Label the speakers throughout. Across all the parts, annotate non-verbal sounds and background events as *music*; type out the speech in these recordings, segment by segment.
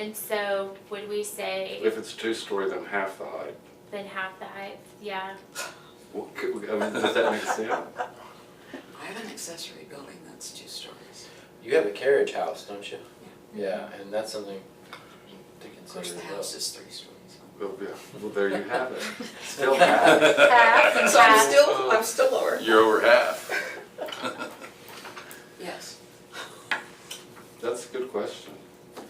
Speaker 1: And so would we say
Speaker 2: If it's two-story, then half the height.
Speaker 1: then half the height? Yeah.
Speaker 2: Well, could we- I mean, does that make
Speaker 3: *laughs*
Speaker 2: sense?
Speaker 4: I have an accessory building that's two stories.
Speaker 3: You have a carriage house, don't you? Yeah, and that's something to
Speaker 4: Of
Speaker 3: consider
Speaker 4: course,
Speaker 3: as
Speaker 4: the
Speaker 3: well.
Speaker 4: house is three stories.
Speaker 2: Well, yeah, well, there you have it.
Speaker 3: *laughs*
Speaker 2: Still half.
Speaker 1: Half and
Speaker 5: So I'm
Speaker 1: half.
Speaker 5: still, I'm still lower.
Speaker 6: You're over half. *laughs*
Speaker 4: Yes.
Speaker 2: That's a good question.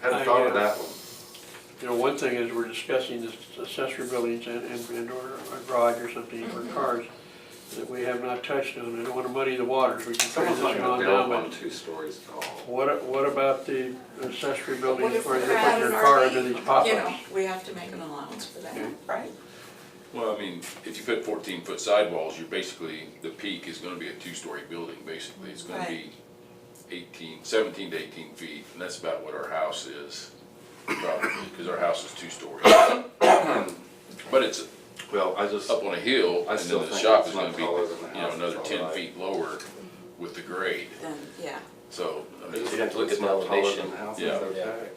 Speaker 2: Hadn't
Speaker 7: I
Speaker 2: thought of that
Speaker 7: guess.
Speaker 2: one.
Speaker 7: You know, one thing is we're discussing this accessory buildings and, and, and or a garage or something for
Speaker 5: Mm-hmm.
Speaker 7: cars that we have not touched on. I don't wanna muddy the waters. We can transition on
Speaker 2: Build
Speaker 7: down,
Speaker 2: one
Speaker 7: but
Speaker 2: two stories tall.
Speaker 7: what, what about the accessory
Speaker 5: What
Speaker 7: buildings
Speaker 5: if
Speaker 7: where they
Speaker 5: we're
Speaker 7: put
Speaker 5: at
Speaker 7: their
Speaker 5: an
Speaker 7: car
Speaker 5: RV?
Speaker 7: under these
Speaker 4: You know,
Speaker 7: pop-ups?
Speaker 4: we have to make an allowance for that.
Speaker 3: Mm-hmm.
Speaker 5: Right.
Speaker 6: Well, I mean, if you put fourteen foot sidewalls, you're basically, the peak is gonna be a two-story building, basically. It's gonna be
Speaker 5: Right.
Speaker 6: eighteen, seventeen to eighteen feet, and that's about what our house is, probably, because our house is two stories. *coughs* But it's
Speaker 2: Well, I just,
Speaker 3: Oh,
Speaker 6: up on a hill,
Speaker 2: I
Speaker 6: and
Speaker 2: still
Speaker 6: then the
Speaker 2: think
Speaker 6: shop
Speaker 2: it's
Speaker 6: is
Speaker 2: not
Speaker 6: gonna be, you
Speaker 2: taller than the
Speaker 6: know,
Speaker 2: house,
Speaker 6: another
Speaker 2: it's
Speaker 6: ten
Speaker 2: alright.
Speaker 6: feet lower with the grade,
Speaker 4: Then, yeah,
Speaker 6: so. I mean,
Speaker 3: You'd have to look at
Speaker 2: it's
Speaker 3: the
Speaker 2: not taller than
Speaker 3: elevation.
Speaker 2: the house,
Speaker 6: Yeah.
Speaker 2: it's okay.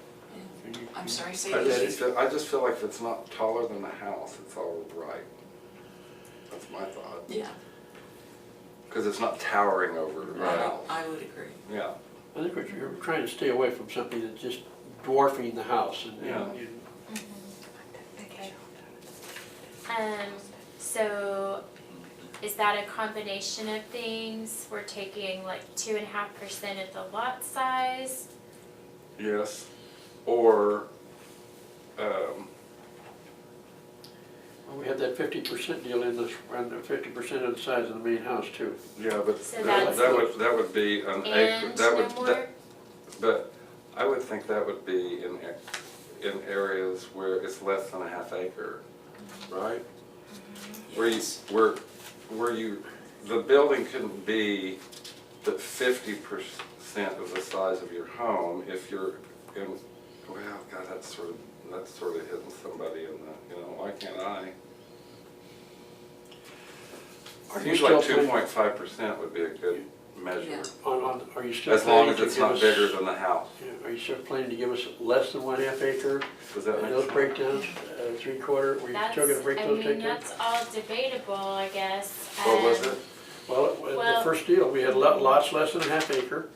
Speaker 4: I'm sorry, say
Speaker 2: I
Speaker 4: it again.
Speaker 2: just, feel- I just feel like if it's not taller than the house, it's all right. That's my thought.
Speaker 4: Yeah,
Speaker 2: Because it's not towering over the
Speaker 6: Right.
Speaker 2: house.
Speaker 4: Oh, I would agree.
Speaker 2: Yeah.
Speaker 7: I think what you're trying to stay away from something that's just dwarfing the house and, and
Speaker 2: Yeah.
Speaker 7: you-
Speaker 1: Okay. Um, so is that a combination of things? We're taking like two and a half percent of the lot size?
Speaker 2: Yes. Or, um,
Speaker 7: well, we had that fifty percent deal in this, and the fifty percent of the size of the main house too.
Speaker 2: yeah, but
Speaker 1: So
Speaker 2: that
Speaker 1: that's-
Speaker 2: that would, that would be an acre,
Speaker 1: And
Speaker 2: that
Speaker 1: no
Speaker 2: would, that-
Speaker 1: more?
Speaker 2: but I would think that would be in, a- in areas where it's less than a half acre, right? Where you,
Speaker 4: Yes.
Speaker 2: where, where you, the building couldn't be the fifty percent of the size of your home if you're in, well, God, that's sort of, that's sort of hitting somebody in the, you know, why can't I?
Speaker 7: Are you
Speaker 2: Seems
Speaker 7: still
Speaker 2: like two
Speaker 7: planning-
Speaker 2: point five percent would be a good measure,
Speaker 4: Yeah.
Speaker 7: On, on, are you still
Speaker 2: as long
Speaker 7: planning
Speaker 2: as
Speaker 7: to
Speaker 2: it's
Speaker 7: give
Speaker 2: not
Speaker 7: us-
Speaker 2: bigger than the house.
Speaker 7: Yeah, Are you still planning to give us less than one half acre?
Speaker 2: Does that
Speaker 7: And
Speaker 2: make
Speaker 7: those
Speaker 2: sense?
Speaker 7: breakdowns, uh, three quarter, were you still gonna
Speaker 1: That's,
Speaker 7: break
Speaker 1: I
Speaker 7: those
Speaker 1: mean,
Speaker 7: takedowns?
Speaker 1: that's all debatable, I guess.
Speaker 2: What was
Speaker 1: Um,
Speaker 2: it?
Speaker 7: Well, it was
Speaker 1: Well-
Speaker 7: the first deal, we had lo- lots less than a half acre,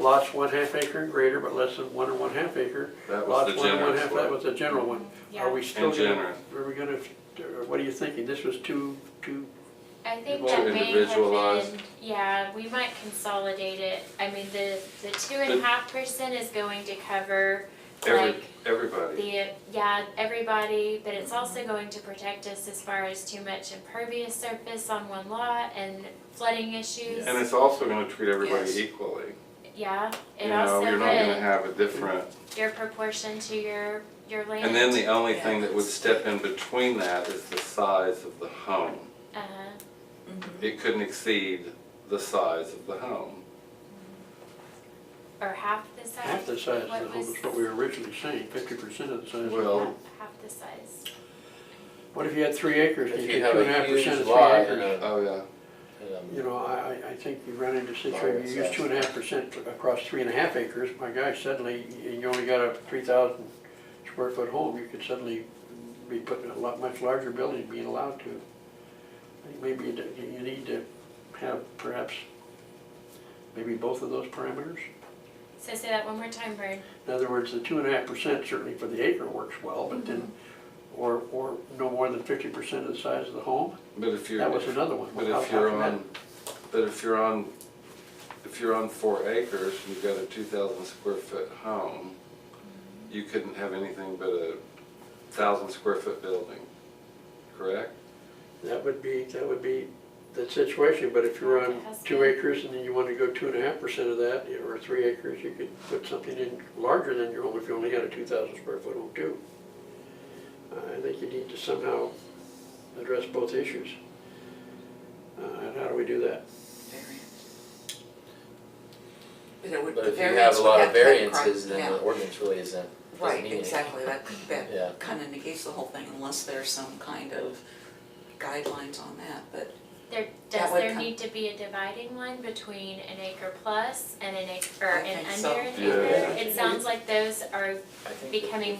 Speaker 7: lots one half acre and greater, but less than one and one half acre.
Speaker 2: That was
Speaker 7: Lots
Speaker 2: the
Speaker 7: one and one
Speaker 2: generous
Speaker 7: half.
Speaker 2: one.
Speaker 7: That was the general one. Are
Speaker 1: Yeah,
Speaker 7: we still gonna,
Speaker 2: generous.
Speaker 7: are we gonna, or what are you thinking? This was two, two,
Speaker 1: I think
Speaker 2: Well,
Speaker 1: that may have
Speaker 2: individualized.
Speaker 1: been, yeah, we might consolidate it. I mean, the, the two and a
Speaker 2: But-
Speaker 1: half percent is going to cover
Speaker 2: Every,
Speaker 1: like
Speaker 2: everybody,
Speaker 1: the, yeah, everybody, but it's also going to protect us as far as too much impervious surface on one lot and flooding issues.
Speaker 2: and it's also gonna treat everybody
Speaker 4: Yes.
Speaker 2: equally.
Speaker 1: Yeah,
Speaker 2: You
Speaker 1: it
Speaker 2: know,
Speaker 1: also
Speaker 2: you're not gonna
Speaker 1: would,
Speaker 2: have a different,
Speaker 1: your proportion to your, your land.
Speaker 2: and then the only
Speaker 4: Yeah,
Speaker 2: thing that would
Speaker 4: that's-
Speaker 2: step in between that is the size of the home.
Speaker 1: Uh-huh.
Speaker 4: Mhm.
Speaker 2: It couldn't exceed the size of the home.
Speaker 1: Or half the size.
Speaker 7: half the size of the
Speaker 1: What
Speaker 7: home
Speaker 1: was-
Speaker 7: is what we were originally saying, fifty percent of the size. of the
Speaker 2: Well-
Speaker 7: home.
Speaker 1: Half the size.
Speaker 7: What if you had three acres,
Speaker 3: If
Speaker 7: you
Speaker 3: you
Speaker 7: get
Speaker 3: have
Speaker 7: two and a half
Speaker 3: a huge
Speaker 7: percent of three
Speaker 3: lot and
Speaker 7: acres?
Speaker 3: a,
Speaker 2: Oh, yeah.
Speaker 3: and
Speaker 7: You
Speaker 3: a-
Speaker 7: know, I, I, I think you run into situations, you use two and a half percent across three and a half acres, my gosh, suddenly, and you only got a three thousand square foot home, you could suddenly be putting a lot, much larger building being allowed to. I think Maybe you, do- you need to have perhaps, maybe both of those parameters?
Speaker 1: So say that one more time, Vern.
Speaker 7: In other words, the two and a half percent certainly for the acre works well, but then, or, or no more than fifty percent of the size of the home,
Speaker 2: But if you're.
Speaker 7: that was another one.
Speaker 2: But
Speaker 7: How-
Speaker 2: if
Speaker 7: how
Speaker 2: you're
Speaker 7: can that-
Speaker 2: on, but if you're on, if you're on four acres, and you've got a two thousand square foot home, you couldn't have anything but a thousand square foot building, correct?
Speaker 7: That would be, that would be the situation, but if you're on two acres and then you wanna go two and a half percent of that, or three acres, you could put something in larger than your home if you only had a two thousand square foot home too. I think you need to somehow address both issues. Uh, and how do we do that?
Speaker 4: Variant. But it would,
Speaker 3: But
Speaker 4: the
Speaker 3: if you have
Speaker 4: variance
Speaker 3: a
Speaker 4: would
Speaker 3: lot
Speaker 4: have
Speaker 3: of
Speaker 4: to have
Speaker 3: variances,
Speaker 4: crime-
Speaker 3: then
Speaker 4: yeah.
Speaker 3: the ordinance really isn't, doesn't mean
Speaker 4: Right,
Speaker 3: anything.
Speaker 4: exactly, that,
Speaker 3: Yeah.
Speaker 4: that kind of negates the whole thing unless there's some kind of guidelines on that, but
Speaker 1: There,
Speaker 4: That
Speaker 1: does
Speaker 4: would
Speaker 1: there
Speaker 4: come-
Speaker 1: need to be a dividing line between an acre plus and an acre, or
Speaker 4: I
Speaker 1: an
Speaker 4: think so.
Speaker 1: under an
Speaker 2: Yeah.
Speaker 1: acre? It sounds like those are
Speaker 3: I think that-
Speaker 1: becoming